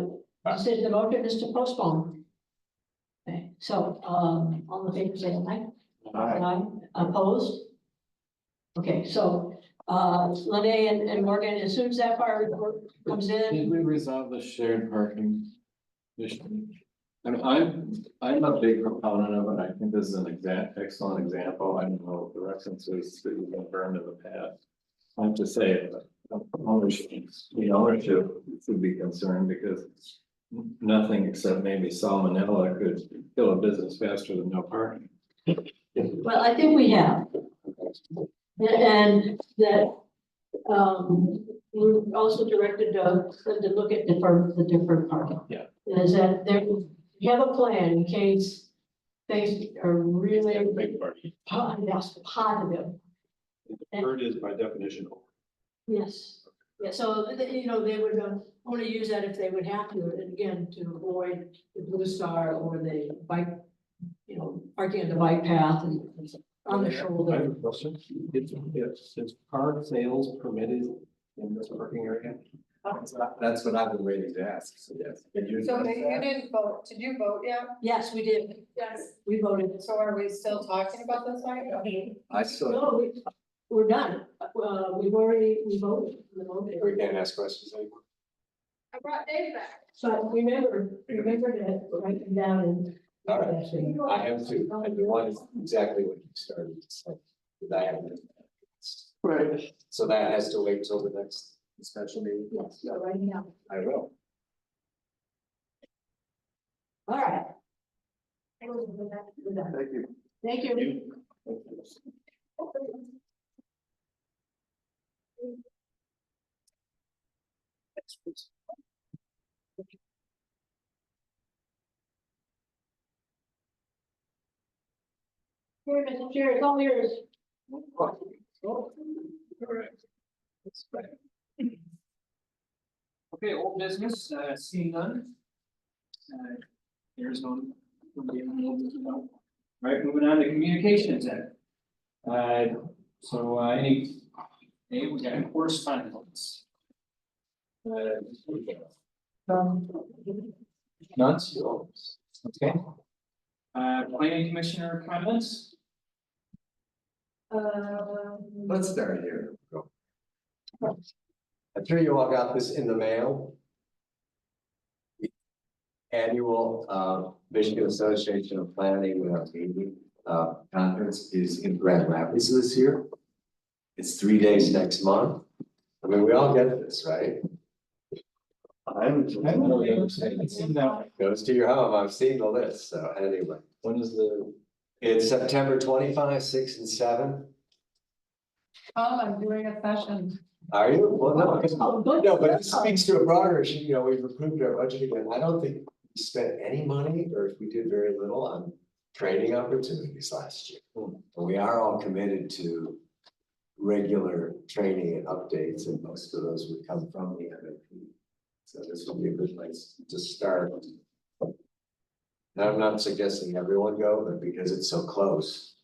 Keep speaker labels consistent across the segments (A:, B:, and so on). A: uh, you said the motion is to postpone. Okay, so, um, all the papers say aye.
B: Aye.
A: opposed? Okay, so, uh, Lene and, and Morgan, as soon as that fire report comes in,
C: Did we resolve the shared parking? issue? I mean, I'm, I'm a big proponent of it, I think this is an exact, excellent example, I don't know the references that we've been burned in the past. I have to say, uh, ownership, the ownership should be concerned because nothing except maybe salmonella could kill a business faster than no parking.
A: well, I think we have. And that, um, we also directed Doug to look at different, the different parking.
C: Yeah.
A: Is that there, you have a plan in case things are really
D: Big party.
A: po- yes, positive.
D: The bird is by definition.
A: Yes, yeah, so, th- you know, they would uh, only use that if they would have to, and again, to avoid the Blue Star or the bike, you know, parking on the bike path and and on the
D: I have
A: shoulder.
D: a question. Is, is, is car sales permitted in this parking area?
C: That's what I- That's what I've been waiting to ask, so yes. Did you
E: So
C: address
E: they- you
C: that?
E: didn't vote, did you vote yet?
A: Yes, we did,
E: Yes.
A: we voted.
E: So are we still talking about this item?
C: I still,
A: No, we, we're done, uh, we've already, we voted, we
D: We can't
A: voted.
D: ask questions anymore.
E: I brought Dave back.
A: So remember, remember to write them down and.
B: All I have two, and the one is exactly what you started, it's like the diameter.
A: Right.
B: So that has to wait till the next special meeting.
A: Yes, you're writing down.
B: I will.
A: All right.
C: thank you.
A: Thank you. Here, Mr. Chair, it's all yours.
F: Okay, old business, uh, seeing none. Uh, There's no. nobody in the old business, no. Right, moving on to communications then. Uh, so, uh, any, hey, we got correspondence. Uh,
C: None? Okay.
F: uh, planning commissioner comments?
A: Uh,
E: Um,
C: Let's start here.
G: I'm sure you all got this in the mail. Annual uh, Michigan Association of Planning uh, meeting, uh, conference is in Grand Rapids this year. It's three days next month. I mean, we all get this, right?
C: I'm. I don't really understand. It seemed that way.
G: Goes to your home. I've seen the list, so anyway.
C: When is the,
G: It's September twenty-five, six and seven.
E: Tom, I'm doing a session.
G: Are you? Well, no, because
A: Oh, good.
G: No, but it speaks to a broader issue, you know, we've approved our budget again, I don't think we spent any money, or if we did very little on training opportunities last year. And we are all committed to regular training and updates, and most of those would come from the MAP. So this would be a good place to start. Now, I'm not suggesting everyone go, but because it's so close.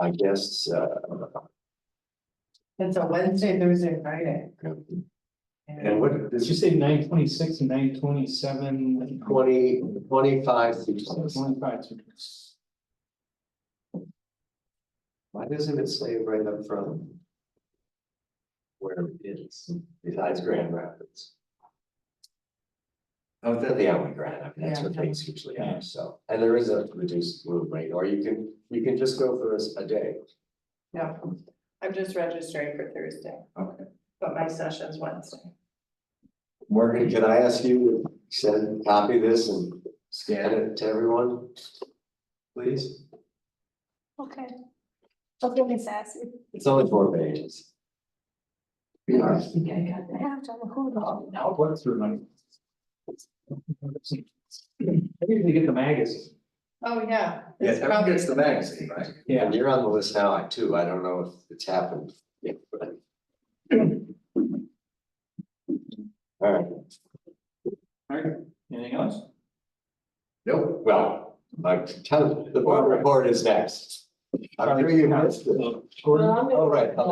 G: I guess, uh,
E: It's a Wednesday, Thursday, Friday.
G: and what,
F: Did
G: this
F: you
G: is
F: say nine twenty-six and nine twenty-seven?
G: twenty, twenty-five to twenty-six.
F: Twenty-five.
G: Why doesn't it say right up front? Where it is, besides Grand Rapids? Oh, they're the only Grand, I mean, that's what things usually are, so, and there is a reduced room rate, or you can, you can just go for a s- a day.
E: Yeah, I'm just registering for Thursday,
G: Okay.
E: but my session's Wednesday.
G: Morgan, can I ask you to send, copy this and scan it to everyone? Please,
H: Okay. Don't get me sassy.
G: it's only four pages.
A: I think I got
H: I
A: that.
H: have to have a hood on.
F: Now, what's through money? I usually get the magazine.
E: Oh, yeah.
C: Yeah,
E: It's
C: everyone
E: probably-
C: gets the magazine, right?
F: Yeah.
G: And you're on the list now, I too, I don't know if it's happened. yet, but- All right,
F: Alright, anything else?
G: nope, well, my, tell, the board report is next. I'm sure you missed it.
A: Well, I'm gonna-
G: All right,